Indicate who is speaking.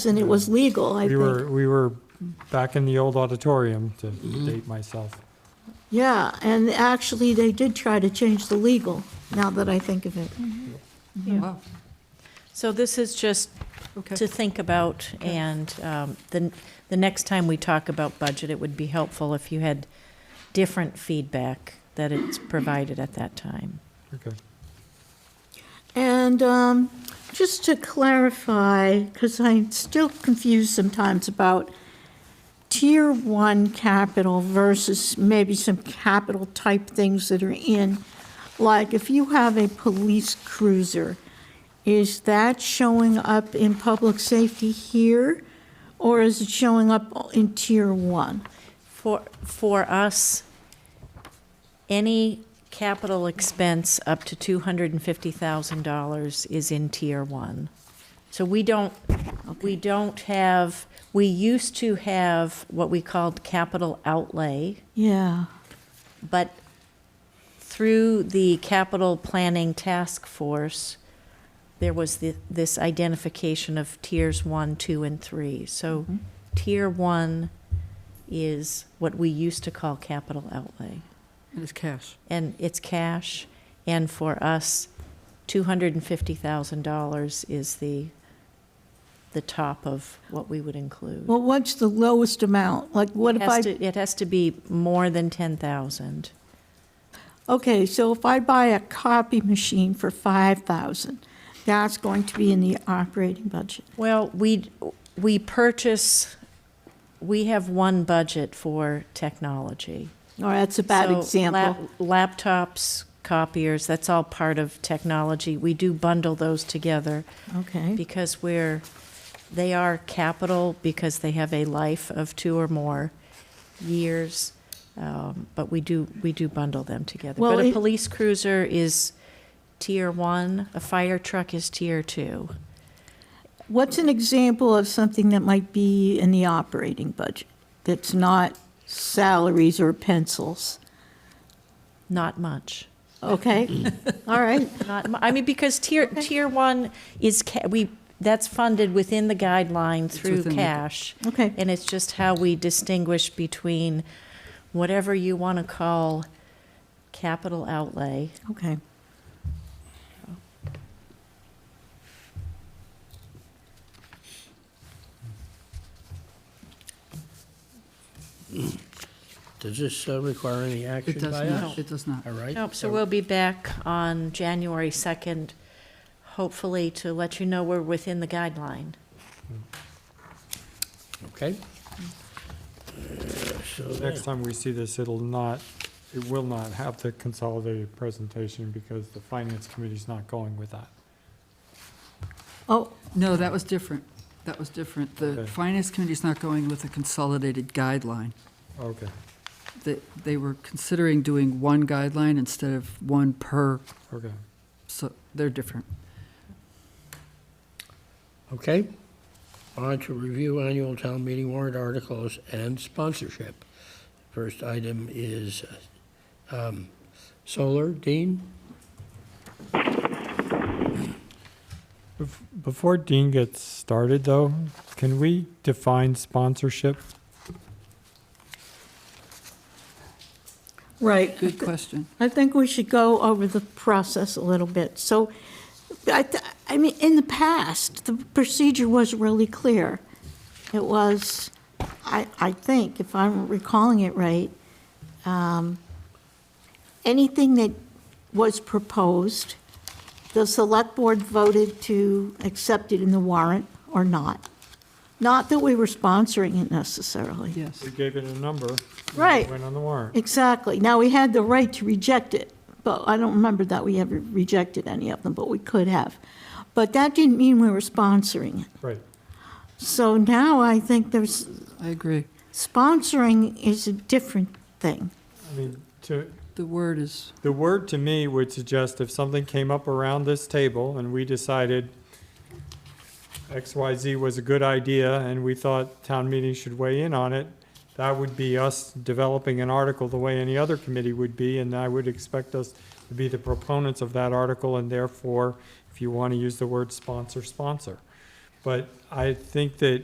Speaker 1: and it was legal, I
Speaker 2: We
Speaker 1: think.
Speaker 2: were, we were back in the old auditorium, to date myself.
Speaker 1: Yeah, and actually, they did try to change the legal, now that I think of it.
Speaker 3: Wow.
Speaker 4: So this is just
Speaker 3: Okay.
Speaker 4: to think about, and um, the, the next time we talk about budget, it would be helpful if you had different feedback that it's provided at that time.
Speaker 2: Okay.
Speaker 1: And um, just to clarify, because I'm still confused sometimes about tier one capital versus maybe some capital type things that are in, like if you have a police cruiser, is that showing up in public safety here? Or is it showing up in tier one?
Speaker 4: For, for us, any capital expense up to $250,000 is in Tier 1. So we don't, we don't have, we used to have what we called capital outlay,
Speaker 1: Yeah,
Speaker 4: but through the capital planning task force, there was thi- this identification of tiers one, two, and three. So
Speaker 1: Mm-hmm.
Speaker 4: tier one is what we used to call capital outlay.
Speaker 3: And it's cash.
Speaker 4: And it's cash, and for us, two hundred and fifty thousand dollars is the, the top of what we would include.
Speaker 1: well, what's the lowest amount? Like, what
Speaker 4: It
Speaker 1: if
Speaker 4: has
Speaker 1: I?
Speaker 4: to- It has to be more than ten thousand.
Speaker 1: Okay, so if I buy a copy machine for 5,000, that's going to be in the operating budget.
Speaker 4: Well, we, we purchase, we have one budget for technology.
Speaker 1: Or that's a bad
Speaker 4: So lap-
Speaker 1: example.
Speaker 4: Laptops, copiers, that's all part of technology. We do bundle those together
Speaker 1: Okay,
Speaker 4: because we're, they are capital because they have a life of two or more years. Um, But we do, we do bundle them together.
Speaker 1: Well,
Speaker 4: But a
Speaker 1: it-
Speaker 4: police cruiser is tier one, a fire truck is tier two.
Speaker 1: what's an example of something that might be in the operating budget that's not salaries or pencils?
Speaker 4: Not much.
Speaker 1: Okay, all right,
Speaker 4: Not, mu- I mean, because tier, tier one is, ca- we, that's funded within the guideline through
Speaker 3: within the-
Speaker 4: cash.
Speaker 1: okay.
Speaker 4: And it's just how we distinguish between whatever you want to call capital outlay.
Speaker 1: Okay.
Speaker 5: Does this uh, require any action
Speaker 3: It does
Speaker 5: by
Speaker 3: not,
Speaker 5: us?
Speaker 3: it does not.
Speaker 5: All right.
Speaker 4: Nope, so we'll be back on January 2nd, hopefully to let you know we're within the guideline.
Speaker 5: Okay. Uh, So
Speaker 2: Next
Speaker 5: next,
Speaker 2: time we see this, it'll not, it will not have the consolidated presentation because the finance committee's not going with that.
Speaker 1: Oh,
Speaker 3: No, that was different. That was different. The
Speaker 2: Okay.
Speaker 3: Finance Committee's not going with a consolidated guideline.
Speaker 2: Okay.
Speaker 3: They, they were considering doing one guideline instead of one per,
Speaker 2: Okay.
Speaker 3: so they're different.
Speaker 5: okay. On to review annual town meeting warrant articles and sponsorship. First item is um, solar. Dean?
Speaker 2: Bef- Before Dean gets started, though, can we define sponsorship?
Speaker 1: right.
Speaker 3: Good question.
Speaker 1: I think we should go over the process a little bit. So, I, th- I mean, in the past, the procedure was really clear. It was, I, I think, if I'm recalling it right, um, anything that was proposed, the select board voted to accept it in the warrant or not. Not that we were sponsoring it necessarily.
Speaker 3: Yes.
Speaker 2: We gave it a number. and it
Speaker 1: Right.
Speaker 2: Went on the warrant.
Speaker 1: Exactly. Now, we had the right to reject it, but I don't remember that we ever rejected any of them, but we could have. But that didn't mean we were sponsoring it.
Speaker 2: Right.
Speaker 1: So now I think there's,
Speaker 3: I agree.
Speaker 1: sponsoring is a different thing.
Speaker 2: I mean, to,
Speaker 3: The word is,
Speaker 2: The word to me would suggest if something came up around this table and we decided XYZ was a good idea and we thought town meeting should weigh in on it, that would be us developing an article the way any other committee would be, and I would expect us to be the proponents of that article, and therefore, if you want to use the word sponsor, sponsor. But I think that